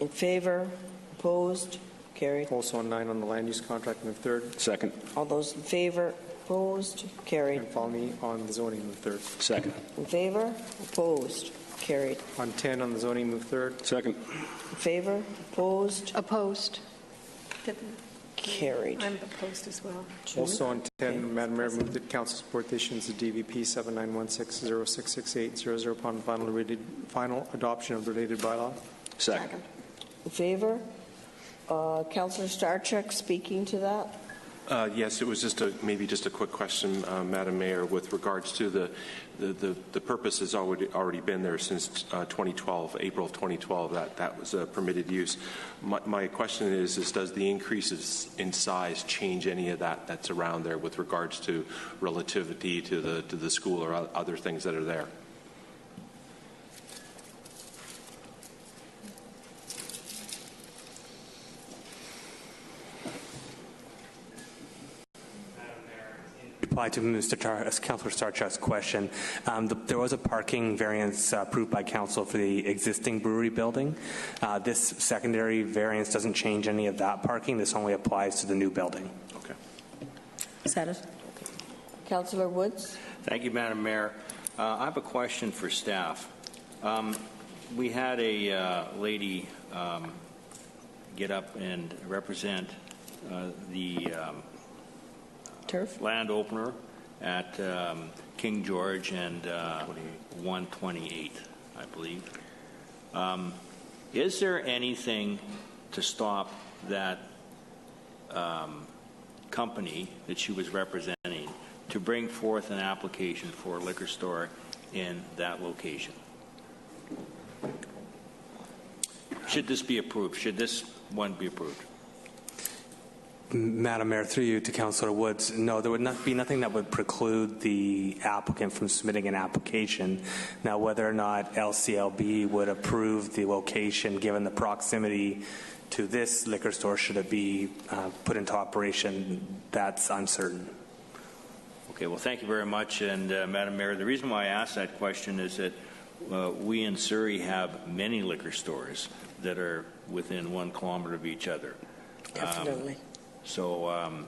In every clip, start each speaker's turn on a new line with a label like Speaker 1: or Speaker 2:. Speaker 1: In favor? Opposed? Carried.
Speaker 2: Also on nine on the land use contract, move third.
Speaker 3: Second.
Speaker 1: All those in favor? Opposed? Carried.
Speaker 2: And follow me on the zoning, move third.
Speaker 3: Second.
Speaker 1: In favor? Opposed? Carried.
Speaker 2: On 10 on the zoning, move third.
Speaker 3: Second.
Speaker 1: In favor? Opposed?
Speaker 4: Opposed?
Speaker 1: Carried.
Speaker 4: I'm opposed as well.
Speaker 2: Also on 10, Madam Mayor, move that council support the issuance of DVP 7916066800 upon final reading, final adoption of the related bylaw.
Speaker 3: Second.
Speaker 1: In favor? Uh, Counselor Starcheck speaking to that?
Speaker 5: Uh, Yes, it was just a, maybe just a quick question, uh, Madam Mayor, with regards to the, the- the the purpose has already, already been there since uh, 2012, April of 2012, that, that was a permitted use. My, my question is, is does the increases in size change any of that that's around there with regards to relativity to the, to the school or o- other things that are there?
Speaker 6: reply to Mr. Char, uh, Councilor Starchuk's question. Um, the- There was a parking variance uh, approved by council for the existing brewery building. Uh, This secondary variance doesn't change any of that parking. This only applies to the new building.
Speaker 5: Okay.
Speaker 1: Counselor Woods?
Speaker 7: Thank you, Madam Mayor. Uh, I have a question for staff. Um, We had a uh, lady um, get up and represent uh, the um,
Speaker 1: Turf?
Speaker 7: land opener at um, King George and uh, 128, I believe. Um, Is there anything to stop that um, company that she was representing to bring forth an application for a liquor store in that location? Should this be approved? Should this one be approved?
Speaker 6: M- Madam Mayor, through you to Councilor Woods, no, there would not be nothing that would preclude the applicant from submitting an application. Now, whether or not LCLB would approve the location, given the proximity to this liquor store, should it be uh, put into operation, that's uncertain.
Speaker 7: Okay, well, thank you very much. And uh, Madam Mayor, the reason why I asked that question is that uh, we in Surrey have many liquor stores that are within one kilometer of each other.
Speaker 1: Definitely.
Speaker 7: So, um,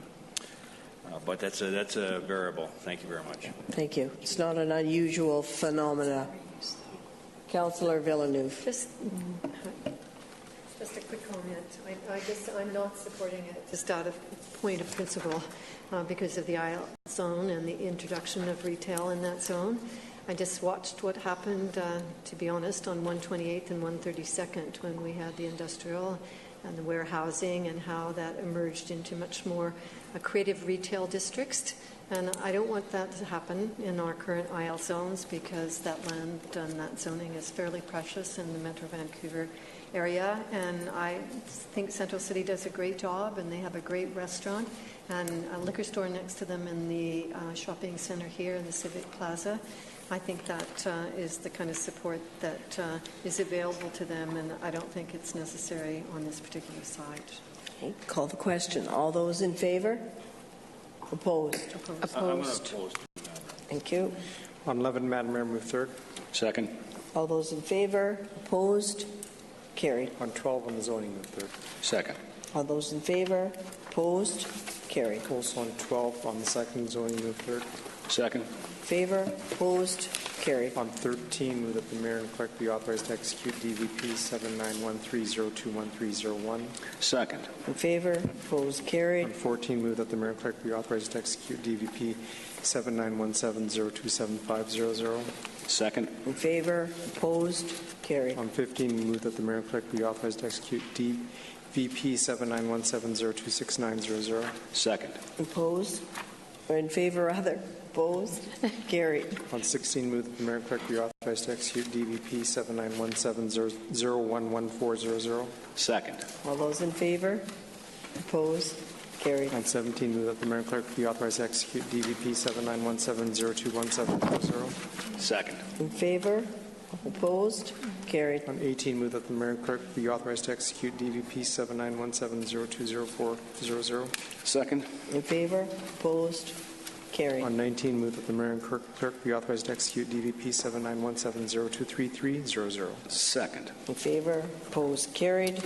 Speaker 7: uh, but that's a, that's a variable. Thank you very much.
Speaker 1: Thank you. It's not an unusual phenomena. Counselor Villeneuve?
Speaker 4: Just, just a quick comment. I, I guess I'm not supporting it, just out of point of principle, uh, because of the aisle zone and the introduction of retail in that zone. I just watched what happened, uh, to be honest, on 128th and 132nd, when we had the industrial and the warehousing, and how that emerged into much more uh, creative retail districts. And I don't want that to happen in our current IL zones because that land and that zoning is fairly precious in the Metro Vancouver area. And I think Central City does a great job and they have a great restaurant and a liquor store next to them in the uh, shopping center here in the Civic Plaza. I think that uh, is the kind of support that uh, is available to them and I don't think it's necessary on this particular site.
Speaker 1: Okay, Call the question. All those in favor? Opposed?
Speaker 4: Opposed?
Speaker 1: Thank you.
Speaker 2: On 11, Madam Mayor, move third.
Speaker 3: Second.
Speaker 1: All those in favor? Opposed? Carried.
Speaker 2: On 12 on the zoning, move third.
Speaker 3: Second.
Speaker 1: All those in favor? Opposed? Carried.
Speaker 2: Also on 12 on the second zoning, move third.
Speaker 3: Second.
Speaker 1: Favor? Opposed? Carried.
Speaker 2: On 13, move that the mayor and clerk be authorized to execute DVP 7913021301.
Speaker 3: Second.
Speaker 1: In favor? Opposed? Carried.
Speaker 2: On 14, move that the mayor and clerk be authorized to execute DVP 7917027500.
Speaker 3: Second.
Speaker 1: In favor? Opposed? Carried.
Speaker 2: On 15, move that the mayor and clerk be authorized to execute DVP 7917026900.
Speaker 3: Second.
Speaker 1: Opposed? Or in favor other? Opposed? Carried.
Speaker 2: On 16, move that the mayor and clerk be authorized to execute DVP 7917011400.
Speaker 3: Second.
Speaker 1: All those in favor? Opposed? Carried.
Speaker 2: On 17, move that the mayor and clerk be authorized to execute DVP 7917021700.
Speaker 3: Second.
Speaker 1: In favor? Opposed? Carried.
Speaker 2: On 18, move that the mayor and clerk be authorized to execute DVP 7917020400.
Speaker 3: Second.
Speaker 1: In favor? Opposed? Carried.
Speaker 2: On 19, move that the mayor and clerk clerk be authorized to execute DVP 79170233000.
Speaker 3: Second.
Speaker 1: In favor? Opposed? Carried.